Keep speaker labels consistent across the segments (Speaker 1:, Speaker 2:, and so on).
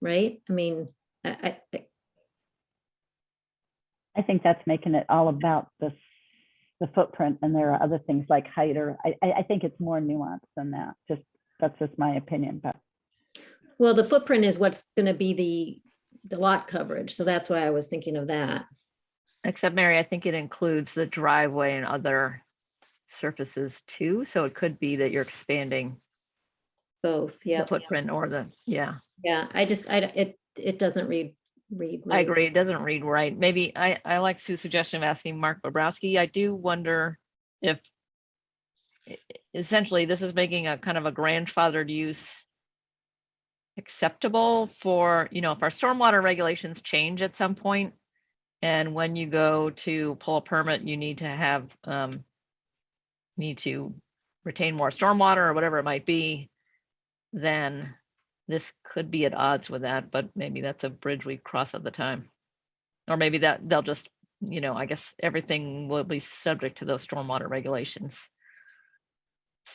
Speaker 1: right? I mean, I, I, I-
Speaker 2: I think that's making it all about the, the footprint and there are other things like height or, I, I, I think it's more nuanced than that. Just, that's just my opinion, but
Speaker 1: well, the footprint is what's gonna be the, the lot coverage, so that's why I was thinking of that.
Speaker 3: Except Mary, I think it includes the driveway and other surfaces too, so it could be that you're expanding
Speaker 1: Both,
Speaker 3: the
Speaker 1: yeah,
Speaker 3: footprint or the, yeah.
Speaker 1: yeah, I just, I, it, it doesn't read, read.
Speaker 3: I
Speaker 1: right.
Speaker 3: agree, it doesn't read right. Maybe I, I like Sue's suggestion of asking Mark Bobrowski. I do wonder if e- essentially this is making a kind of a grandfathered use acceptable for, you know, if our stormwater regulations change at some point, and when you go to pull a permit, you need to have, um, need to retain more stormwater or whatever it might be, then this could be at odds with that, but maybe that's a bridge we cross at the time. Or maybe that they'll just, you know, I guess everything will be subject to those stormwater regulations.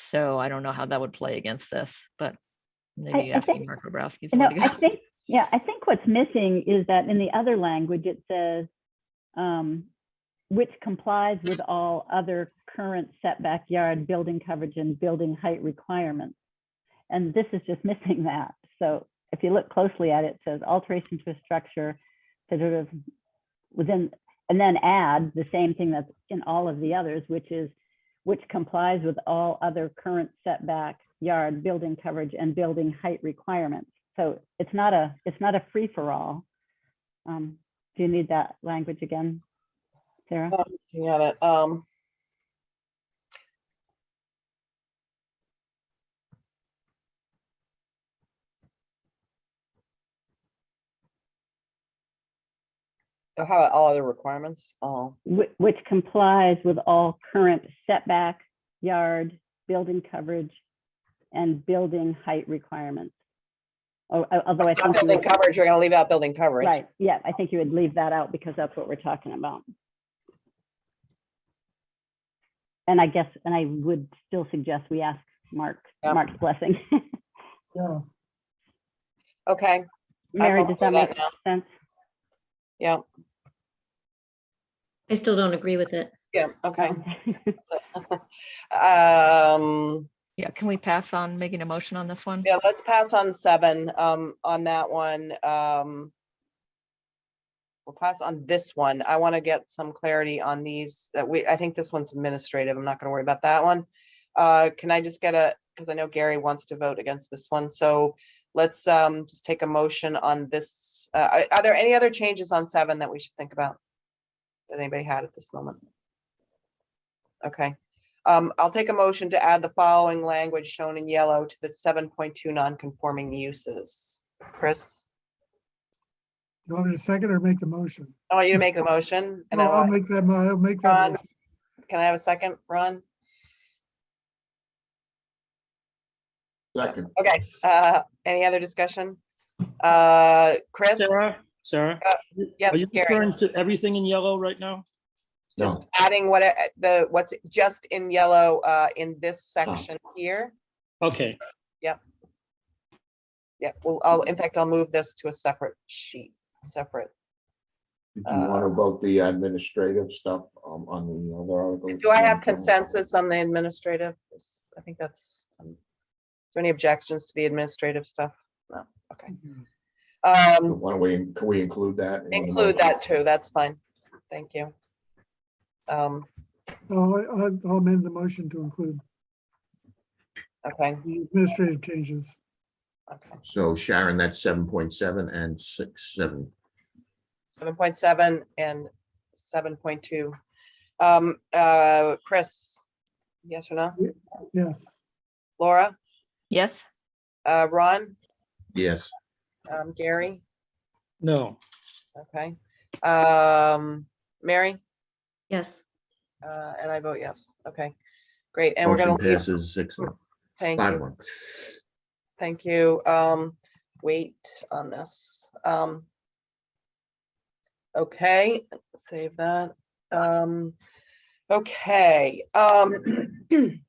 Speaker 3: So I don't know how that would play against this, but
Speaker 2: I-
Speaker 3: maybe
Speaker 2: I
Speaker 3: asking
Speaker 2: think-
Speaker 3: Mark Bobrowski's.
Speaker 2: You know,
Speaker 3: way to go.
Speaker 2: I think, yeah, I think what's missing is that in the other language, it says, um, which complies with all other current setback yard building coverage and building height requirements. And this is just missing that. So if you look closely at it, it says alteration to a structure to sort of within, and then add the same thing that's in all of the others, which is which complies with all other current setback, yard, building coverage, and building height requirements. So it's not a, it's not a free-for-all. Um, Do you need that language again, Sarah?
Speaker 4: Uh, Looking at it, um. oh, How about all other requirements? Oh,
Speaker 2: Whi- Which complies with all current setback, yard, building coverage, and building height requirements. Oh, al- Although I
Speaker 4: not
Speaker 2: think, you
Speaker 4: building
Speaker 2: would-
Speaker 4: coverage, you're gonna leave out building coverage.
Speaker 2: right, yeah, I think you would leave that out because that's what we're talking about. And I guess, and I would still suggest we ask Mark,
Speaker 4: Yeah.
Speaker 2: Mark's blessing.
Speaker 4: Okay,
Speaker 2: Mary,
Speaker 4: vote
Speaker 2: does that
Speaker 4: for that
Speaker 2: make
Speaker 4: now.
Speaker 2: sense?
Speaker 4: yeah,
Speaker 1: I still don't agree with it.
Speaker 4: yeah, okay. Um,
Speaker 3: Yeah, can we pass on making a motion on this one?
Speaker 4: yeah, let's pass on seven, um, on that one, um. We'll pass on this one. I want to get some clarity on these that we, I think this one's administrative. I'm not gonna worry about that one. Uh, can I just get a, because I know Gary wants to vote against this one, so let's, um, just take a motion on this. Uh, are- are there any other changes on seven that we should think about? That anybody had at this moment? Okay, um, I'll take a motion to add the following language shown in yellow to the seven point two non-conforming uses. Chris,
Speaker 5: You want me to second or make the motion?
Speaker 4: I want you to make the motion. and I
Speaker 5: Well, I'll
Speaker 4: want-
Speaker 5: make that, mo- I'll make
Speaker 4: Ron,
Speaker 5: that. motion.
Speaker 4: Can I have a second, Ron?
Speaker 6: Second.
Speaker 4: Okay, uh, any other discussion? Uh, Chris?
Speaker 7: Sarah, Sarah?
Speaker 4: Uh, Yes,
Speaker 7: Are you
Speaker 4: Gary,
Speaker 7: referring to everything in yellow right now?
Speaker 6: No,
Speaker 4: adding what, uh, the, what's just in yellow, uh, in this section here?
Speaker 7: Okay,
Speaker 4: Yeah, well, I'll, in fact, I'll move this to a separate sheet, separate.
Speaker 6: if you
Speaker 4: uh,
Speaker 6: want to vote the administrative stuff um, on the other article.
Speaker 4: Do I have consensus on the administrative? Is- I think that's, um, is there any objections to the administrative stuff? No, okay. Um,
Speaker 6: Why don't we, can we include that? in the
Speaker 4: include
Speaker 6: motion?
Speaker 4: that too, that's fine. Thank you. Um,
Speaker 5: I'll I'll- I'll amend the motion to include
Speaker 4: okay,
Speaker 5: the administrative changes.
Speaker 4: okay.
Speaker 6: So Sharon, that's seven point seven and six, seven.
Speaker 4: Seven point seven and seven point two. Um, uh, Chris? Yes or no?
Speaker 5: Yes,
Speaker 4: Laura?
Speaker 3: Yes,
Speaker 4: Uh, Ron?
Speaker 6: Yes,
Speaker 4: Um, Gary?
Speaker 7: no,
Speaker 4: Okay. Um, Mary?
Speaker 1: Yes,
Speaker 4: Uh, and I vote yes. Okay, great. And we're gonna,
Speaker 6: motion
Speaker 4: leave-
Speaker 6: passes six, one,
Speaker 4: thank
Speaker 6: five,
Speaker 4: you,
Speaker 6: one.
Speaker 4: thank you. Um, wait on this. Um. Okay, save that. Um, okay, um.